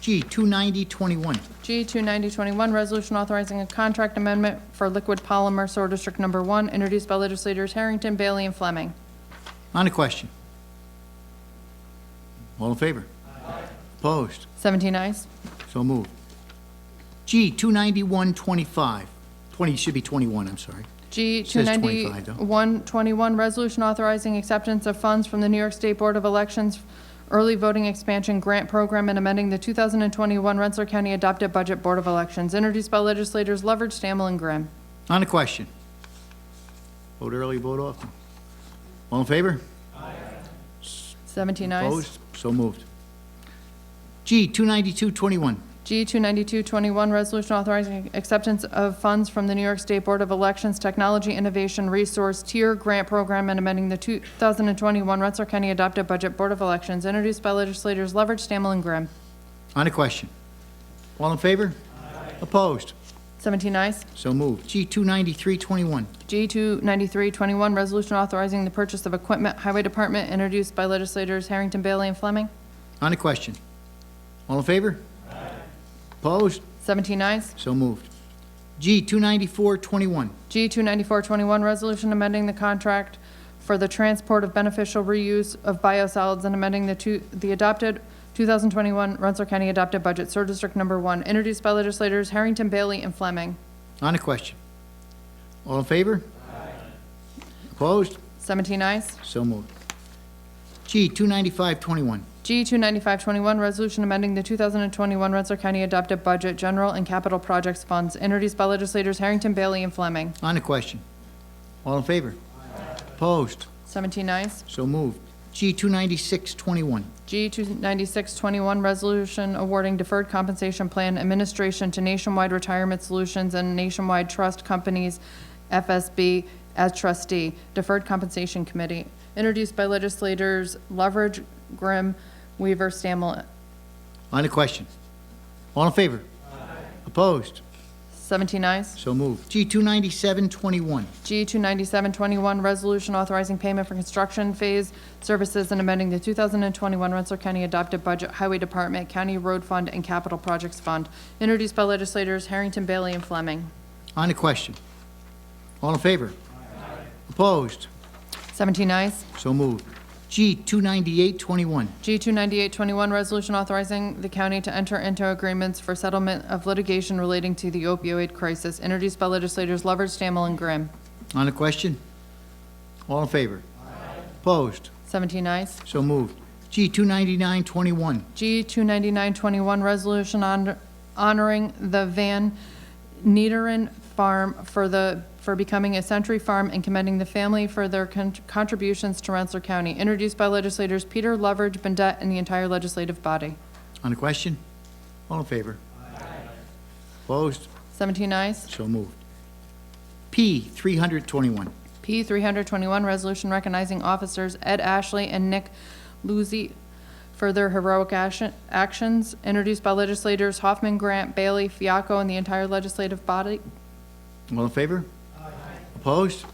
G, 29021. G 29021, resolution authorizing a contract amendment for liquid polymer sewer district number one, introduced by legislators Harrington, Bailey, and Fleming. On the question. All in favor? Opposed? 17 ayes. So moved. G, 29125. 20, should be 21, I'm sorry. G Says 25, though. 29121, resolution authorizing acceptance of funds from the New York State Board of Elections Early Voting Expansion Grant Program and amending the 2021 Rensselaer County Adopted Budget Board of Elections, introduced by legislators Leverage, Stammel, and Grimm. On the question. Vote early, vote often. All in favor? 17 ayes. Opposed? So moved. G, 29221. G 29221, resolution authorizing acceptance of funds from the New York State Board of Elections Technology Innovation Resource Tier Grant Program and amending the 2021 Rensselaer County Adopted Budget Board of Elections, introduced by legislators Leverage, Stammel, and Grimm. On the question. All in favor? Opposed? 17 ayes. So moved. G, 29321. G 29321, resolution authorizing the purchase of equipment, Highway Department, introduced by legislators Harrington, Bailey, and Fleming. On the question. All in favor? Opposed? 17 ayes. So moved. G, 29421. G 29421, resolution amending the contract for the transport of beneficial reuse of biosolids and amending the two, the adopted 2021 Rensselaer County adopted budget, Sur District Number 1, introduced by legislators Harrington, Bailey, and Fleming. On the question. All in favor? Opposed? 17 ayes. So moved. G, 29521. G 29521, resolution amending the 2021 Rensselaer County adopted budget, general and capital projects funds, introduced by legislators Harrington, Bailey, and Fleming. On the question. All in favor? Opposed? 17 ayes. So moved. G, 29621. G 29621, resolution awarding deferred compensation plan administration to Nationwide Retirement Solutions and Nationwide Trust Companies, FSB, as trustee, Deferred Compensation Committee, introduced by legislators Leverage, Grimm, Weaver, Stammel, On the question. All in favor? Opposed? 17 ayes. So moved. G, 29721. G 29721, resolution authorizing payment for construction phase services and amending the 2021 Rensselaer County adopted budget, Highway Department, County Road Fund, and Capital Projects Fund, introduced by legislators Harrington, Bailey, and Fleming. On the question. All in favor? Opposed? 17 ayes. So moved. G, 29821. G 29821, resolution authorizing the county to enter into agreements for settlement of litigation relating to the opioid crisis, introduced by legislators Lovers, Stammel, and Grimm. On the question? All in favor? Opposed? 17 ayes. So moved. G, 29921. G 29921, resolution hon- honoring the Van Nederen Farm for the, for becoming a century farm and commending the family for their con- contributions to Rensselaer County, introduced by legislators Peter Lovers, Bendet, and the entire legislative body. On the question? All in favor? Opposed? 17 ayes. So moved. P, 321. P three hundred twenty-one, resolution recognizing officers Ed Ashley and Nick Luzzi for their heroic action- actions, introduced by legislators Hoffman, Grant, Bailey, Fiaco, and the entire legislative body. All in favor? Opposed?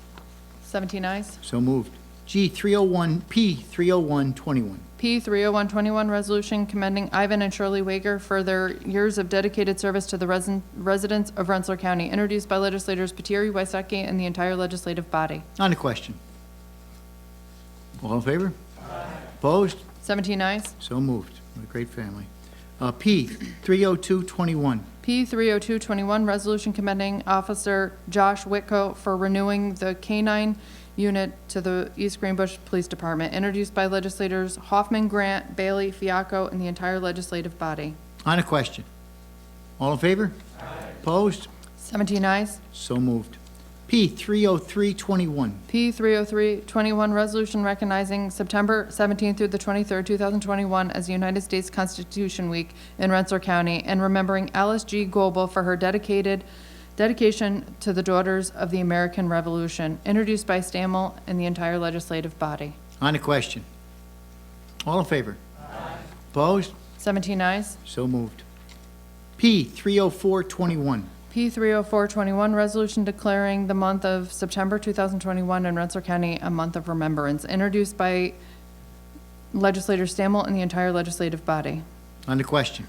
Seventeen ayes. So moved. G, 301, P, 30121. P three oh one twenty-one, resolution commending Ivan and Shirley Wager for their years of dedicated service to the resin- residents of Rensselaer County, introduced by legislators Patiri, Wysocki, and the entire legislative body. On the question? All in favor? Opposed? Seventeen ayes. So moved. What a great family. Uh, P, 30221. P 30221, resolution commending Officer Josh Whitco for renewing the K-9 unit to the East Greenbush Police Department, introduced by legislators Hoffman, Grant, Bailey, Fiaco, and the entire legislative body. On the question? All in favor? Opposed? 17 ayes. So moved. P, 30321. P 30321, resolution recognizing September 17th through the 23rd, 2021 as United States Constitution Week in Rensselaer County, and remembering Alice G. Goebel for her dedicated, dedication to the Daughters of the American Revolution, introduced by Stammel and the entire legislative body. On the question? All in favor? Opposed? 17 ayes. So moved. P, 30421. P 30421, resolution declaring the month of September 2021 in Rensselaer County a month of remembrance, introduced by legislator Stammel and the entire legislative body. On the question.